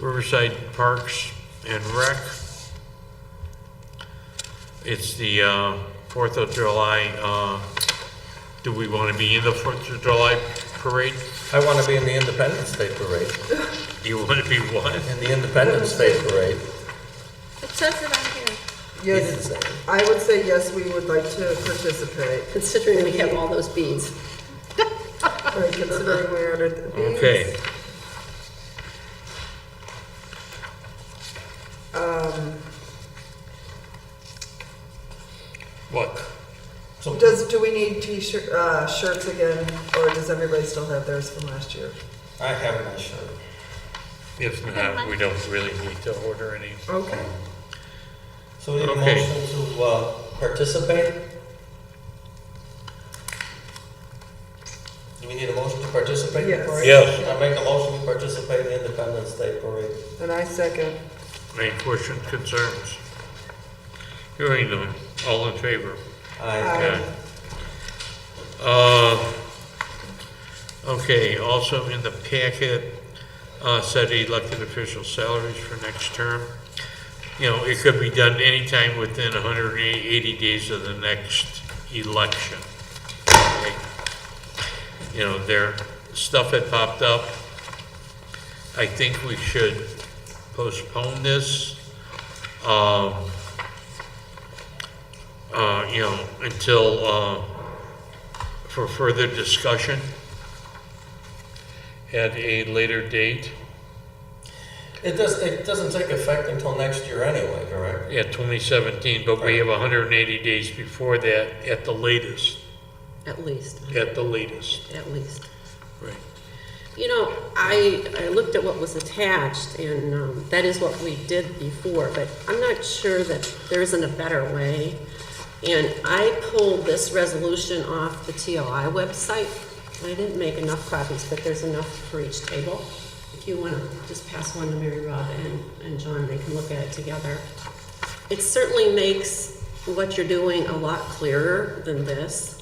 Riverside Parks and Rec. It's the uh, Fourth of July, uh, do we want to be in the Fourth of July parade? I want to be in the Independence Day Parade. You want to be what? In the Independence Day Parade. It says it on here. Yes, I would say yes, we would like to participate, Considering we have all those beads. Right, considering we ordered the beads. Okay, what? Does, do we need t-shirt, uh, shirts again, or does everybody still have theirs from last year? I have my shirt. If not, we don't really need to order any. Okay. So we need a Okay. motion to uh, participate? Do we need a motion to participate in the Yes. parade? Yes. I make a motion to participate in the Independence Day Parade. And I second. Any questions, concerns? Hearing them, all in favor? Aye. Okay. Uh, Okay, also in the packet, uh, said elected official salaries for next term. You know, it could be done anytime within 180 days of the next election. Okay? You know, there, stuff had popped up. I think we should postpone this. Um, uh, you know, until, uh, for further discussion at a later date, It does, it doesn't take effect until next year anyway, correct? at 2017, but we have 180 days before that at the latest, At least, at the latest. at least. Right. You know, I, I looked at what was attached, and um, that is what we did before, but I'm not sure that there isn't a better way. And I pulled this resolution off the TOI website. I didn't make enough copies, but there's enough for each table. If you want to just pass one to Mary Rob and, and John, they can look at it together. It certainly makes what you're doing a lot clearer than this.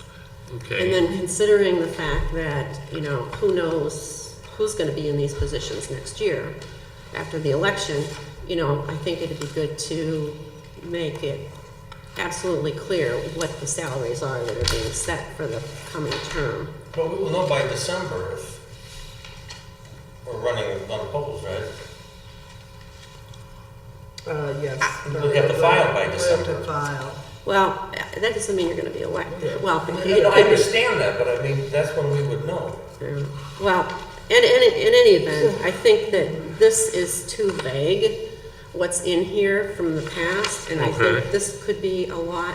And Okay, then considering the fact that, you know, who knows who's gonna be in these positions next year after the election, you know, I think it'd be good to make it absolutely clear what the salaries are that are being set for the coming term. But we will know by December if we're running on polls, right? Uh, yes. We have to file by We have December. to file. Well, that doesn't mean you're gonna be elected, well, No, but you no, I could be understand that, but I mean, that's when we would know. Yeah. Well, in, in, in any event, I think that this is too vague, what's in here from the past, and I Okay. think this could be a lot.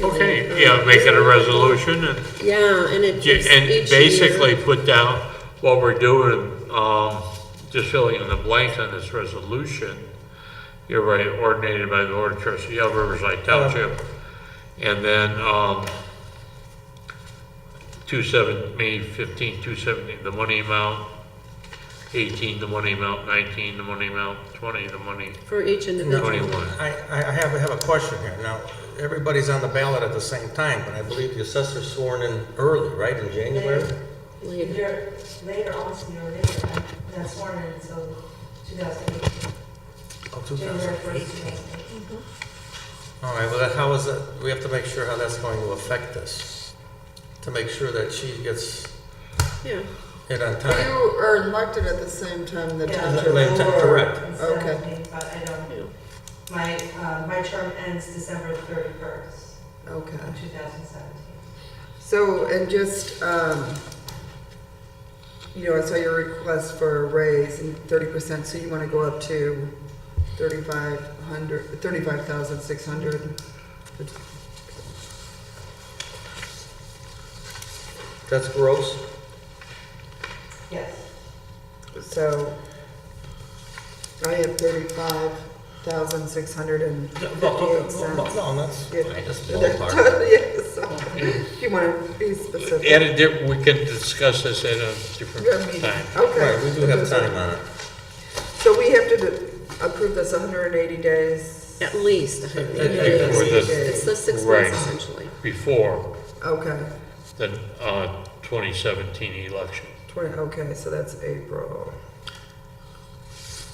okay, yeah, make it a resolution and, Yeah, and it ju- gives and each basically year. put down what we're doing, um, just filling in the blanks on this resolution. You're right, ordinated by the Board of Trustees of Riverside Township. And then, um, two seven, May fifteen, two seventeen, the money amount, eighteen, the money amount, nineteen, the money amount, twenty, the money. For each No. individual. 21. I, I I have, I have a question here. Now, everybody's on the ballot at the same time, but I believe the assessor's sworn in early, right, in January? Later. They're later on, so you're later, and that's sworn in until 2018, Oh, 2000. January 1st, 2018. All right, well, then how is that, we have to make sure how that's going to affect this, to make sure that she gets Yeah, it on time. You are elected at the same time the Yeah. township. Like- board. correct. Instead of Okay. me, But I don't, my, uh, my term ends December 31st, Okay. of 2017. So, and just, um, you know, I saw your request for a raise and thirty percent, so you wanna go up to thirty-five hundred, thirty-five thousand six hundred? That's gross. Yes. So, I have thirty-five thousand six hundred and fifty-eight cents. No, that's, Yeah. I just ballpark. Yeah, so, if you wanna be specific? At a, di- we can discuss this at a Yeah, different me- time. Right, we Okay, do have time on it. so we have to do- approve this hundred and eighty days? at least. I At- think. at For the- It's the six Right. months essentially. Before Okay, the, uh, twenty seventeen election. twenty, okay, so that's April.